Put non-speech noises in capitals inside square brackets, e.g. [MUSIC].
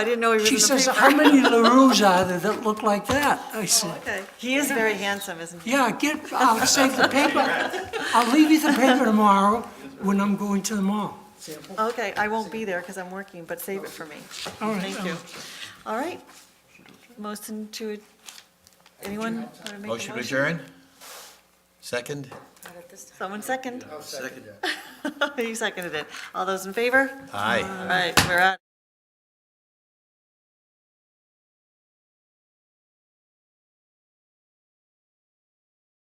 I didn't know he was in She the says, paper. how many [LAUGHS] LaRues are there that look like that? I said, Okay. He is very handsome, isn't he? yeah, get, I'll save the paper. I'll leave you the paper tomorrow when I'm going to the mall. Okay, I won't be there because I'm working, but save it for me. All right, Thank you. All right. Motion to, anyone want to make a Motion motion? to adjourn? Second? Someone second? [LAUGHS] Second. You seconded it. All those in favor? Aye. All right, we're out.